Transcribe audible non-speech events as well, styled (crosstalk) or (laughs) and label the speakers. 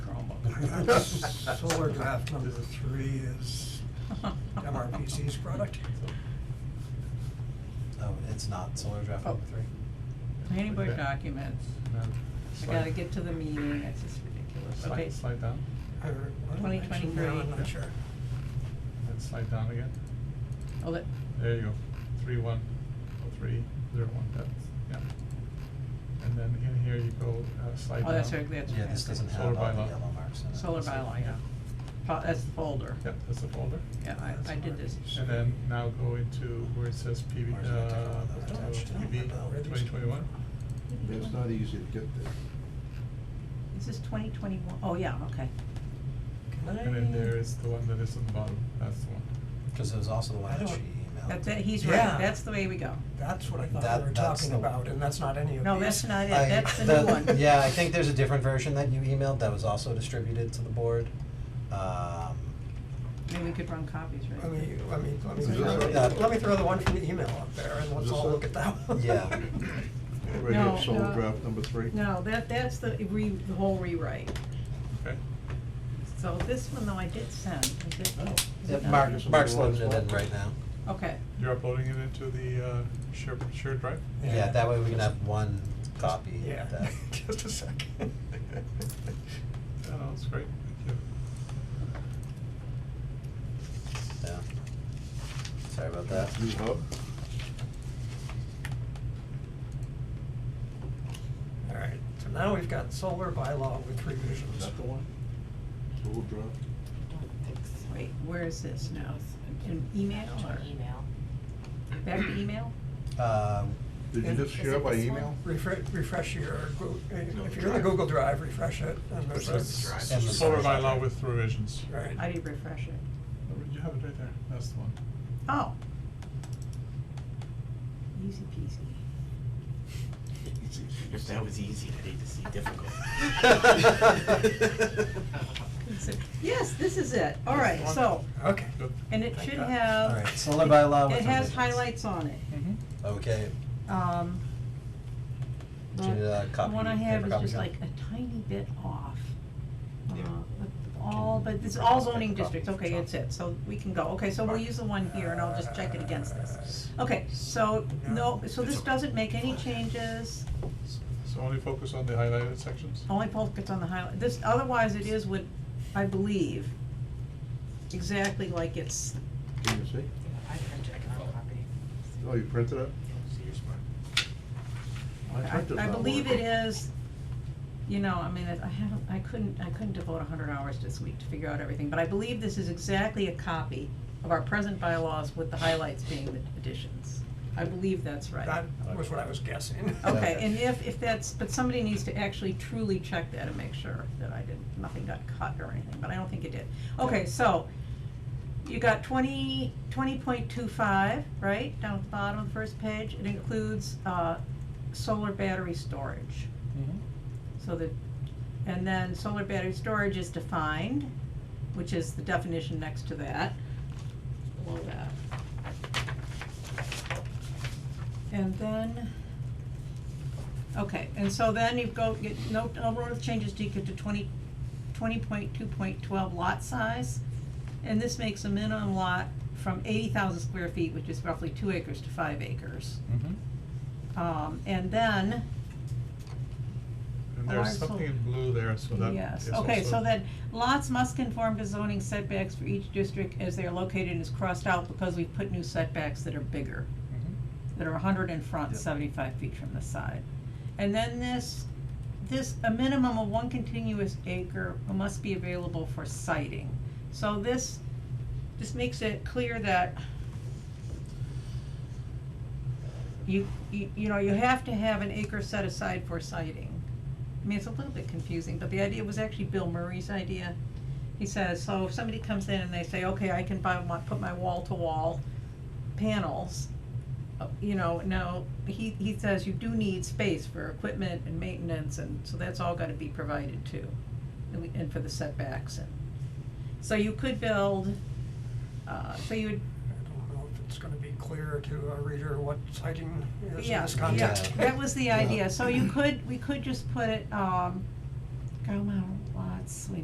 Speaker 1: That's Solar draft number three is MRPC's product.
Speaker 2: No, it's not, solar draft
Speaker 3: Oh.
Speaker 2: number three.
Speaker 3: Planning board
Speaker 4: Okay.
Speaker 3: documents.
Speaker 4: No.
Speaker 3: I
Speaker 4: Slide-
Speaker 3: gotta get to the meeting, it's just ridiculous.
Speaker 4: Slide,
Speaker 3: Okay,
Speaker 4: slide down,
Speaker 1: Or-
Speaker 3: Twenty
Speaker 1: actually,
Speaker 3: twenty-three.
Speaker 1: no, I'm not sure.
Speaker 4: then slide down again.
Speaker 3: oh, that,
Speaker 4: There you go, three one, oh three, zero one, that's, yeah. And then in here you go, uh, slide down.
Speaker 3: oh, that's right, that's.
Speaker 2: Yeah, this
Speaker 3: okay.
Speaker 2: doesn't
Speaker 4: Solar
Speaker 2: have all the
Speaker 4: bylaw.
Speaker 2: yellow marks in it.
Speaker 3: Solar
Speaker 2: It's like-
Speaker 3: bylaw, yeah. Po- that's the folder.
Speaker 4: Yep, that's the folder.
Speaker 3: Yeah, I, I did this.
Speaker 4: And then now go into where it says PB,
Speaker 2: Where's that different
Speaker 4: uh,
Speaker 2: one that I touched?
Speaker 4: PB twenty twenty-one.
Speaker 5: It's not easy to get there.
Speaker 3: This is twenty twenty-one, oh, yeah, okay.
Speaker 1: Can I?
Speaker 4: And then there is the one that is on the bottom, that's the one.
Speaker 2: Cause it was also the one
Speaker 1: I
Speaker 2: that she
Speaker 1: don't-
Speaker 2: emailed.
Speaker 3: That's it, he's
Speaker 1: Yeah.
Speaker 3: right, that's the way we go.
Speaker 1: That's what I thought
Speaker 2: That-
Speaker 1: we were
Speaker 2: that's
Speaker 1: talking
Speaker 2: the-
Speaker 1: about, and that's not any of these.
Speaker 3: No, that's not it,
Speaker 2: I-
Speaker 3: that's the
Speaker 2: that-
Speaker 3: new
Speaker 1: (laughs)
Speaker 3: one.
Speaker 2: (laughs) Yeah, I think there's a different version that you emailed that was also distributed to the board. Um,
Speaker 3: I mean, we could run copies, right?
Speaker 1: Let me, let me, let me,
Speaker 5: Is this
Speaker 1: throw-
Speaker 2: it? Yeah.
Speaker 1: let me throw the one from the email up there, and let's
Speaker 5: this
Speaker 1: all
Speaker 5: it?
Speaker 1: look at that one.
Speaker 2: Yeah.
Speaker 5: Right
Speaker 3: No,
Speaker 5: here, solar
Speaker 3: no.
Speaker 5: draft number three.
Speaker 3: No, that, that's the re, the whole rewrite.
Speaker 4: Okay.
Speaker 3: So this one though I did send, is it?
Speaker 2: oh,
Speaker 3: is
Speaker 2: yeah,
Speaker 3: it not?
Speaker 2: Mark,
Speaker 5: Here's
Speaker 2: Mark's
Speaker 5: another one
Speaker 2: loading it
Speaker 5: as
Speaker 2: in
Speaker 5: well.
Speaker 2: right now.
Speaker 3: Okay,
Speaker 4: You're uploading it into the, uh, shared, shared drive?
Speaker 2: Yeah, that way we can have one copy
Speaker 1: (laughs) Yeah, (laughs)
Speaker 2: that,
Speaker 1: just a
Speaker 5: (laughs)
Speaker 1: second.
Speaker 4: Yeah, no, it's great, thank
Speaker 2: yeah. Sorry about that.
Speaker 4: (laughs)
Speaker 5: New hub,
Speaker 1: All right, so now we've got solar bylaw with revisions.
Speaker 5: is that the one? Solar draft,
Speaker 3: wait, where is this now? In email or
Speaker 6: email.
Speaker 3: back to email?
Speaker 2: Um,
Speaker 5: did you
Speaker 1: Is-
Speaker 5: just
Speaker 1: is
Speaker 5: share
Speaker 6: it
Speaker 5: by
Speaker 6: this one?
Speaker 5: email?
Speaker 1: Refresh, refresh your, Goo- if you're in the
Speaker 5: Drive.
Speaker 1: Google Drive, refresh it, and there's
Speaker 4: you.
Speaker 1: a.
Speaker 2: Drive.
Speaker 4: That's
Speaker 2: And the
Speaker 4: Solar
Speaker 2: solar
Speaker 4: bylaw
Speaker 2: drive.
Speaker 4: with revisions.
Speaker 3: (laughs)
Speaker 1: Right.
Speaker 3: How do you refresh it?
Speaker 4: You have it right there, that's the one.
Speaker 3: Oh. Easy peasy.
Speaker 7: If that was easy, I'd hate to see difficult.
Speaker 3: Yes, this is it, all right, so,
Speaker 1: Okay.
Speaker 4: Good.
Speaker 3: and it
Speaker 1: Thank
Speaker 3: should
Speaker 1: God.
Speaker 3: have,
Speaker 2: Alright, solar bylaw with
Speaker 3: it has
Speaker 2: revisions.
Speaker 3: highlights on it,
Speaker 4: Mm-hmm.
Speaker 2: Okay,
Speaker 3: um.
Speaker 2: Do you need a
Speaker 3: the-
Speaker 2: copy,
Speaker 3: The one I
Speaker 2: paper
Speaker 3: have is
Speaker 2: copy,
Speaker 3: just
Speaker 2: John?
Speaker 3: like a tiny bit off.
Speaker 7: Yeah.
Speaker 3: Uh, but All,
Speaker 2: Can
Speaker 3: but
Speaker 2: you
Speaker 3: it's
Speaker 2: print
Speaker 3: all
Speaker 2: off paper
Speaker 3: zoning
Speaker 2: copy
Speaker 3: districts,
Speaker 2: for
Speaker 3: okay,
Speaker 2: John?
Speaker 3: it's it, so we can go, okay, so we'll use the one here and I'll just check it against this. Okay, so, no, so this doesn't make any changes,
Speaker 4: So only focus on the highlighted sections?
Speaker 3: Only focus on the highlight, this, otherwise it is what, I believe, exactly like it's,
Speaker 5: Can you see?
Speaker 6: I printed our copy.
Speaker 5: Oh, you printed it?
Speaker 7: So you're smart.
Speaker 5: My
Speaker 3: I,
Speaker 5: printer's
Speaker 3: I
Speaker 5: not
Speaker 3: believe it
Speaker 5: working.
Speaker 3: is, you know, I mean, I haven't, I couldn't, I couldn't devote a hundred hours this week to figure out everything, but I believe this is exactly a copy of our present bylaws with the highlights being the additions. I believe that's right.
Speaker 1: That was what I was guessing. (laughs)
Speaker 3: Okay, and if, if that's, but somebody needs to actually truly check that and make sure that I didn't, nothing got cut or anything, but I don't think it did. Okay, so, you got twenty, twenty point two five, right, down at the bottom of the first page, it includes, uh, solar battery storage. So the, and then solar battery storage is defined, which is the definition next to that, below that. And then, okay, and so then you go, get, no, no rule of changes to get to twenty, twenty point two point twelve lot size. And this makes a minimum lot from eighty thousand square feet, which is roughly two acres to five acres.
Speaker 4: Mm-hmm.
Speaker 3: Um, and then,
Speaker 4: And
Speaker 3: Oh,
Speaker 4: there's
Speaker 3: I saw-
Speaker 4: something in blue there, so that
Speaker 3: Yes,
Speaker 4: is
Speaker 3: okay, so
Speaker 4: also-
Speaker 3: then lots must conform to zoning setbacks for each district as they are located and is crossed out because we put new setbacks that are bigger,
Speaker 4: Mhm.
Speaker 3: that are hundred in front,
Speaker 2: Yep.
Speaker 3: seventy-five feet from the side. And then this, this, a minimum of one continuous acre must be available for siting. So this, this makes it clear that you, you, you know, you have to have an acre set aside for siting. I mean, it's a little bit confusing, but the idea was actually Bill Murray's idea. He says, so if somebody comes in and they say, okay, I can buy my, put my wall-to-wall panels, uh, you know, now, he, he says you do need space for equipment and maintenance, and so that's all gotta be provided too. And we, and for the setbacks and, so you could build, uh, so you would,
Speaker 1: I don't know if it's gonna be clear to a reader what citing is in
Speaker 3: Yeah,
Speaker 1: this
Speaker 3: yeah,
Speaker 1: context.
Speaker 3: that was the
Speaker 2: Yeah.
Speaker 3: idea, so you could, we could just put it, um, Gauma lots, we